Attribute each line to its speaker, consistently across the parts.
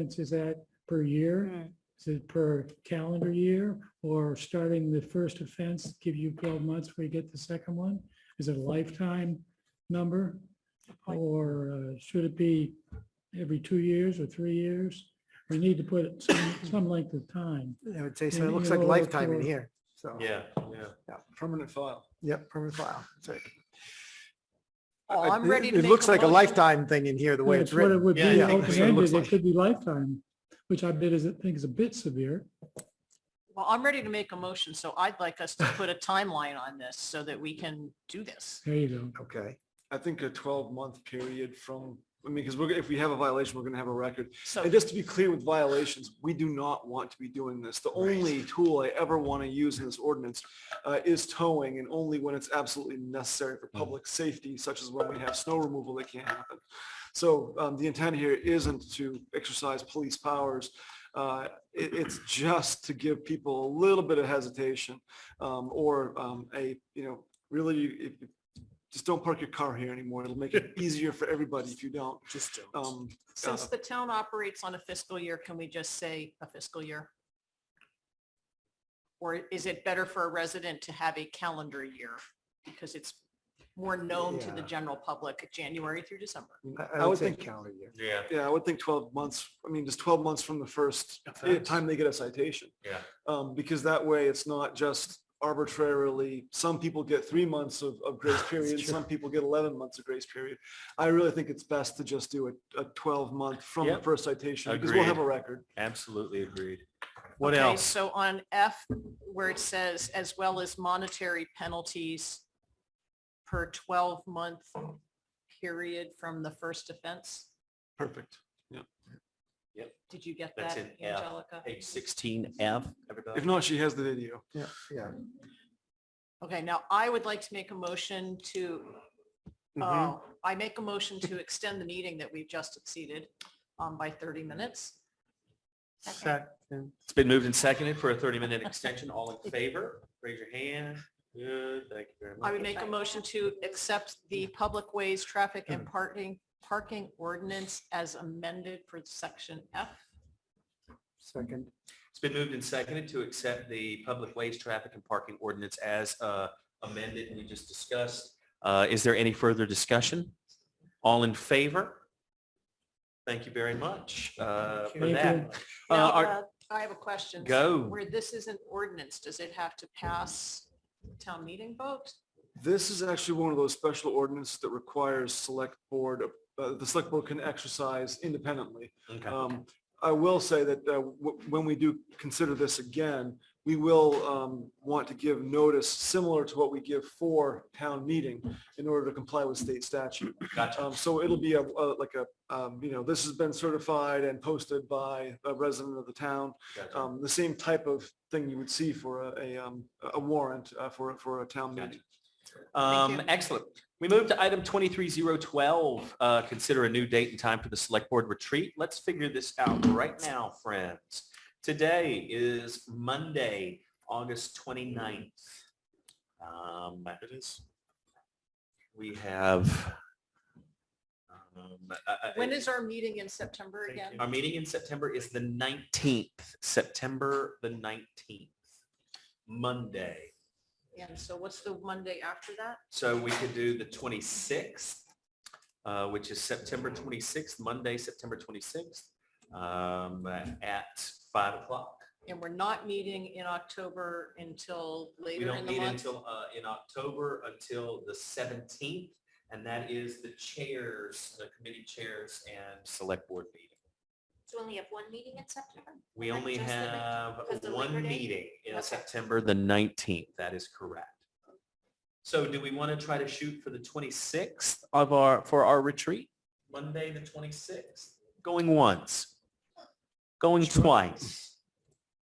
Speaker 1: expense is that per year?
Speaker 2: Mm.
Speaker 1: Is it per calendar year or starting the first offense, give you twelve months where you get the second one? Is it a lifetime number?
Speaker 2: point.
Speaker 1: Or uh, should it be every two years or three years? We need to put some, some length of time.
Speaker 3: I would say, so
Speaker 1: Maybe
Speaker 3: it looks
Speaker 1: you'll
Speaker 3: like
Speaker 1: look
Speaker 3: lifetime in
Speaker 1: for-
Speaker 3: here, so.
Speaker 4: Yeah, yeah.
Speaker 3: yeah,
Speaker 4: Permanent file.
Speaker 3: Yep, permanent file. That's right.
Speaker 2: Well,
Speaker 3: I-
Speaker 2: I'm
Speaker 3: it-
Speaker 2: ready to
Speaker 3: It
Speaker 2: make
Speaker 3: looks
Speaker 2: a
Speaker 3: like a
Speaker 2: motion.
Speaker 3: lifetime thing in here, the way it's
Speaker 1: That's what it
Speaker 3: written.
Speaker 1: would
Speaker 4: Yeah,
Speaker 1: be,
Speaker 4: yeah, that's what it looks
Speaker 1: open-ended, it
Speaker 4: like.
Speaker 1: could be lifetime, which I bit is, I think is a bit severe.
Speaker 2: Well, I'm ready to make a motion, so I'd like us to put a timeline on this so that we can do this.
Speaker 1: There you go.
Speaker 3: Okay,
Speaker 4: I think a twelve month period from, I mean, because we're, gonna- if we have a violation, we're gonna have a record.
Speaker 2: So,
Speaker 4: And just to be clear with violations, we do not want to be doing this. The only tool I ever want to use in this ordinance uh, is towing and only when it's absolutely necessary
Speaker 3: Mm.
Speaker 4: for public safety, such as when we have snow removal that can't happen. So um, the intent here isn't to exercise police powers. Uh, it- It's just to give people a little bit of hesitation um, or um, a, you know, really, if if- just don't park your car here anymore. It'll make it easier for everybody if you don't. Um, Just
Speaker 2: Um,
Speaker 4: don't.
Speaker 2: since the town operates on a fiscal year, can we just say a fiscal year? Or is it better for a resident to have a calendar year? Because it's more known to the
Speaker 3: Yeah.
Speaker 2: general public, January through December.
Speaker 3: I-
Speaker 4: I would
Speaker 3: say
Speaker 4: think-
Speaker 3: calendar year.
Speaker 5: Yeah,
Speaker 4: Yeah, I would think twelve months, I mean, just twelve months from the first i-
Speaker 5: Offense.
Speaker 4: time they get a citation.
Speaker 5: Yeah.
Speaker 4: Um, because that way it's not just arbitrarily, some people get three months of, of grace period, some people get eleven months of grace period. I really think it's best to just do a, a twelve month from the
Speaker 5: Yep.
Speaker 4: first citation, because we'll have a
Speaker 5: Agreed.
Speaker 4: record.
Speaker 5: absolutely agreed. What
Speaker 2: Okay,
Speaker 5: else?
Speaker 2: So on F, where it says, as well as monetary penalties per 12-month period from the first offense,
Speaker 4: Perfect.
Speaker 2: did you get
Speaker 5: That's
Speaker 2: that,
Speaker 5: in F.
Speaker 2: Angelica?
Speaker 5: Page sixteen F,
Speaker 4: If
Speaker 5: everybody.
Speaker 4: not, she has the video.
Speaker 3: Yeah, yeah.
Speaker 2: Okay, now I would like to make a motion to,
Speaker 3: Mhm.
Speaker 5: Mm-hmm.
Speaker 2: oh, I make a motion to extend the meeting that we've just exceeded um, by 30 minutes.
Speaker 3: Second.
Speaker 5: It's been moved and seconded for a thirty-minute extension. All in favor, raise your hand. Good, thank you very much.
Speaker 2: I would make a motion to accept the Public Ways Traffic
Speaker 5: Mm.
Speaker 2: and Parking, Parking Ordinance as amended for section F.
Speaker 3: Second.
Speaker 5: It's been moved and seconded to accept the public ways, traffic and parking ordinance as uh, amended we just discussed. Uh, Is there any further discussion? All in favor? Thank you very much uh, for
Speaker 1: Thank
Speaker 5: that. Uh,
Speaker 2: Now,
Speaker 5: our-
Speaker 2: uh, I have a question.
Speaker 5: Go.
Speaker 2: Where this is an ordinance, does it have to pass town meeting vote?
Speaker 4: This is actually one of those special ordinances that requires select board, uh, the select board can exercise independently.
Speaker 5: Okay.
Speaker 4: Um, I will say that uh, w- when we do consider this again, we will um, want to give notice similar to what we give for town meeting in order to comply with state statute.
Speaker 5: Gotcha.
Speaker 4: Um, So it'll be a, a- like a, um, you know, this has been certified and posted by a resident of the town.
Speaker 5: Gotcha.
Speaker 4: Um, The same type of thing you would see for a- a, um, a warrant uh, for, a- for a town meeting.
Speaker 5: Um,
Speaker 2: you.
Speaker 5: excellent. We move to item 23012, uh, consider a new date and time for the select board retreat. Let's figure this out right now, friends. Today is Monday, August 29th. Um, it is. We have. um, I- I-
Speaker 2: When is our meeting in September again?
Speaker 5: Our meeting in September is the 19th, September the 19th, Monday.
Speaker 2: And so what's the Monday after that?
Speaker 5: So we could do the 26th, uh, which is September 26th, Monday, September 26th, um, at 5 o'clock.
Speaker 2: And we're not meeting in October until
Speaker 5: We
Speaker 2: later
Speaker 5: don't
Speaker 2: in the
Speaker 5: meet
Speaker 2: month.
Speaker 5: until, uh, in October until the 17th, and that is the chairs, the committee chairs and select board meeting.
Speaker 6: So we only have one meeting in September?
Speaker 5: We
Speaker 6: Like
Speaker 5: only
Speaker 6: just the nineteenth,
Speaker 5: have
Speaker 6: because of
Speaker 5: one
Speaker 6: Labor Day?
Speaker 5: meeting in
Speaker 6: Okay.
Speaker 5: September, the 19th. That is correct. So do we want to try to shoot for the 26th of our, for our retreat? Monday, the 26th? Going once, going twice.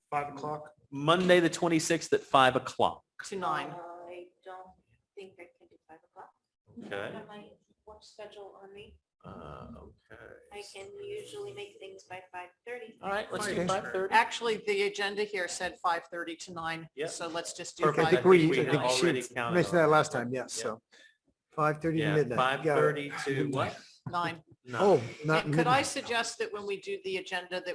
Speaker 3: Five o'clock.
Speaker 5: Monday, the 26th at 5 o'clock.
Speaker 2: To nine.
Speaker 6: Uh, I don't think I can do five o'clock.
Speaker 5: Okay.
Speaker 6: I have my work schedule on me.
Speaker 5: Uh, okay.
Speaker 6: I can usually make things by five thirty.
Speaker 5: All right, let's do
Speaker 3: Okay.
Speaker 5: 5:30.
Speaker 2: Actually, the agenda here said 5:30 to nine.
Speaker 5: Yep.
Speaker 2: So let's just do
Speaker 5: Perfect.
Speaker 3: I think
Speaker 2: 5:30.
Speaker 3: we,
Speaker 5: we
Speaker 3: I
Speaker 5: had
Speaker 3: think
Speaker 5: already
Speaker 3: she
Speaker 5: counted
Speaker 3: mentioned
Speaker 5: on
Speaker 3: that
Speaker 5: it.
Speaker 3: last time, yes,
Speaker 5: Yeah.
Speaker 3: so. Five thirty to
Speaker 5: Yeah,
Speaker 3: midnight. Got it.
Speaker 5: 5:30 to what?
Speaker 2: Nine.
Speaker 5: No.
Speaker 7: Oh, not
Speaker 2: And could I
Speaker 7: midnight.
Speaker 2: suggest that when we do the agenda, that